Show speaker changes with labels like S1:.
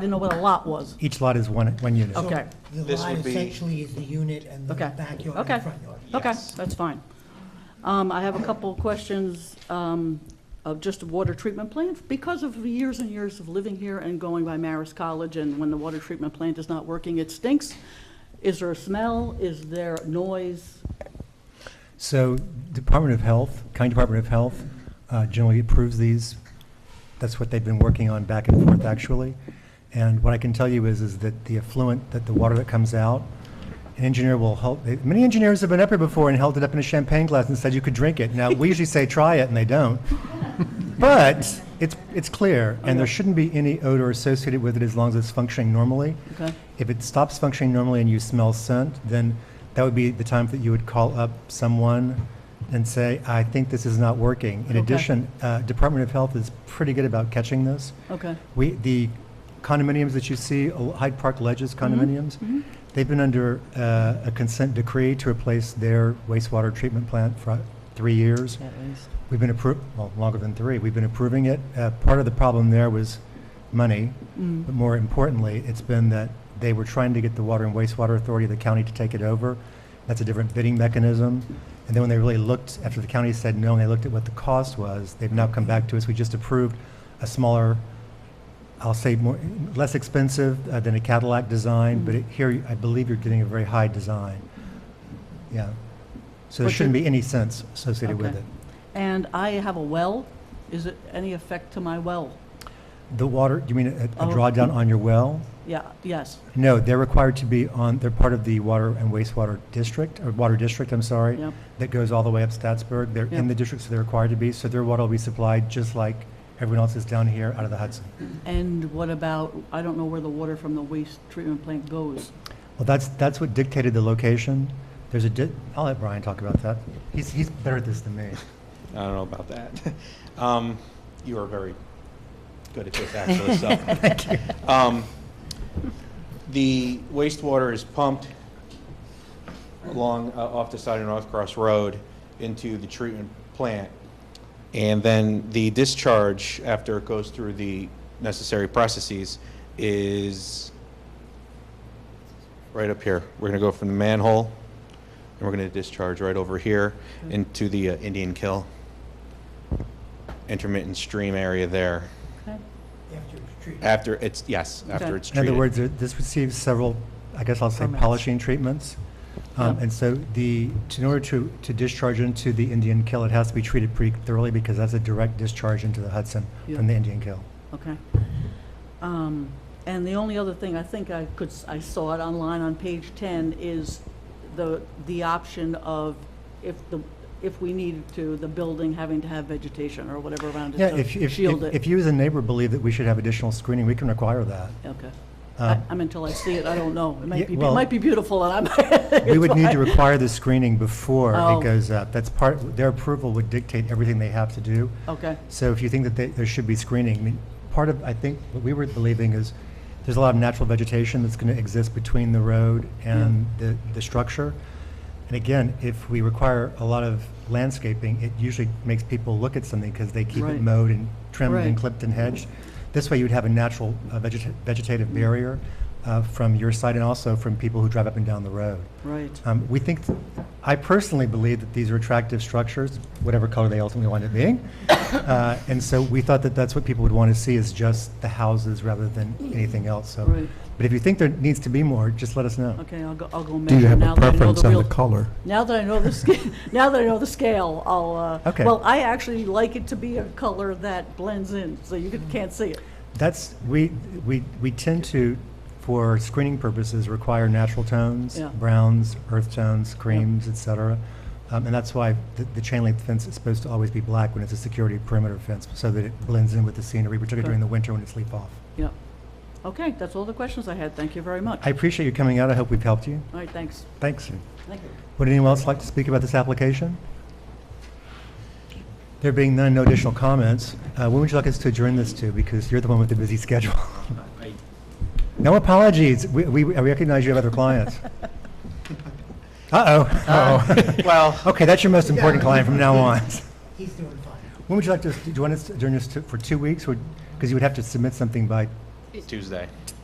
S1: didn't know what a lot was.
S2: Each lot is one, one unit.
S1: Okay.
S3: Um, The
S4: This
S3: lot
S4: would be-
S3: essentially is the unit and the
S1: Okay.
S3: backyard
S1: Okay.
S3: and front yard.
S1: Okay,
S4: Yes.
S1: that's fine. Um, I have a couple of questions um, of just the water treatment plant. Because of years and years of living here and going by Marist College, and when the water treatment plant is not working, it stinks. Is there a smell? Is there noise?
S2: So Department of Health, County Department of Health uh, generally approves these. That's what they've been working on back and forth, actually. And what I can tell you is, is that the affluent, that the water that comes out, an engineer will help, they- many engineers have been up here before and held it up in a champagne glass and said you could drink it. Now, we usually say, try it, and they don't. But it's, it's clear, and there shouldn't be any odor associated with it as long as it's functioning normally.
S1: Okay.
S2: If it stops functioning normally and you smell scent, then that would be the time that you would call up someone and say, I think this is not working. In
S1: Okay.
S2: addition, uh, Department of Health is pretty good about catching this.
S1: Okay,
S2: We, the condominiums that you see, uh, Hyde Park Ledges condominiums, they've been under uh, a consent decree to replace their wastewater treatment plant for three years. We've been appro, well, longer than three, we've been approving it. Uh, Part of the problem there was money,
S1: Mm.
S2: but more importantly, it's been that they were trying to get the Water and Wastewater Authority of the county to take it over. That's a different bidding mechanism. And then when they really looked, after the county said no, and they looked at what the cost was, they've now come back to us. We just approved a smaller, I'll say more, less expensive uh, than a Cadillac design,
S1: Mm.
S2: but it- here, I believe you're getting a very high design. Yeah. So there
S1: But
S2: shouldn't
S1: you're-
S2: be any sense associated with
S1: Okay.
S2: it.
S1: And I have a well. Is it any effect to my well?
S2: The water, you mean a a
S1: Oh.
S2: drawdown on your well?
S1: Yeah, yes.
S2: No, they're required to be on, they're part of the water and wastewater district, or water district, I'm sorry,
S1: Yep.
S2: that goes all the way up Statsburg. They're
S1: Yep.
S2: in the district, so they're required to be, so their water will be supplied just like everyone else is down here out of the Hudson.
S1: And what about, I don't know where the water from the waste treatment plant goes.
S2: Well, that's, that's what dictated the location. There's a, di- I'll let Brian talk about that. He's, he's better at this than me.
S4: I don't know about that. Um, you are very good at this, actually, so. Thank you. Um, the wastewater is pumped along, uh, off the side of North Cross Road into the treatment plant. And then the discharge, after it goes through the necessary processes, is right up here. We're gonna go from the manhole, and we're gonna discharge right over here into the uh, Indian Kill intermittent stream area there.
S1: Okay.
S3: After it's treated.
S4: After it's, yes,
S1: Okay.
S4: after it's
S2: In
S4: treated.
S2: other words, it- this receives several, I guess I'll say
S5: Permits.
S2: polishing treatments. Um,
S1: Yeah.
S2: And so the, to- in order to, to discharge into the Indian Kill, it has to be treated pretty thoroughly because that's a direct discharge into the Hudson
S1: Yeah.
S2: from the Indian Kill.
S1: Okay. Um, And the only other thing, I think I could, s- I saw it online on page 10, is the, the option of if the, if we needed to, the building having to have vegetation or whatever around
S2: Yeah,
S1: it
S2: if,
S1: to
S2: if,
S1: shield
S2: if
S1: it.
S2: if you as a neighbor believe that we should have additional screening, we can require that.
S1: Okay. I
S2: Um,
S1: I mean, until I see it, I don't know. It
S2: Yeah,
S1: might be, it
S2: well-
S1: might be beautiful and I'm.
S2: We would need to require the screening before
S1: Oh.
S2: it goes up. That's part, their approval would dictate everything they have to do.
S1: Okay,
S2: So if you think that they- there should be screening, I mean, part of, I think, what we were believing is there's a lot of natural vegetation that's going to exist between the road and the, the structure. And again, if we require a lot of landscaping, it usually makes people look at something because they keep
S1: Right.
S2: it mowed and trimmed
S1: Right.
S2: and clipped and hedged. This way you'd have a natural uh, vegeta- vegetative barrier uh, from your side and also from people who drive up and down the road.
S1: right.
S2: Um, We think, I personally believe that these are attractive structures, whatever color they ultimately wind up being. Uh, And so we thought that that's what people would want to see, is just the houses rather than anything else, so.
S1: Right.
S2: But if you think there needs to be more, just let us know.
S1: Okay, I'll go, I'll go measure.
S5: Do you have
S1: now
S5: a
S1: that I know
S5: preference on
S1: real-
S5: the color?
S1: Now that I know the scale, now that I know the scale, I'll, uh,
S2: Okay.
S1: well, I actually like it to be a color that blends in, so you could- can't see it.
S2: That's, we, we, we tend to, for screening purposes, require natural tones,
S1: Yeah.
S2: browns, earth tones, creams, et cetera. Um, And that's why the, the chain link fence is supposed to always be black when it's a security perimeter fence, so that it blends in with the scenery, particularly during the winter when it's leaf off.
S1: Yep. Okay, that's all the questions I had. Thank you very much.
S2: I appreciate you coming out. I hope we've helped you.
S1: All right, thanks.
S2: Thanks.
S1: Thank you.
S2: Would anyone else like to speak about this application? There being none, no additional comments. Uh, When would you like us to adjourn this to? Because you're the one with the busy schedule. No apologies. We we I recognize you have other clients. Uh-oh. Uh-oh.
S4: Well-
S2: Okay, that's your most important client from now on.
S3: He's doing fine.
S2: When would you like to, do you want us to adjourn this to- for two weeks? Because you would have to submit something by
S4: Tuesday.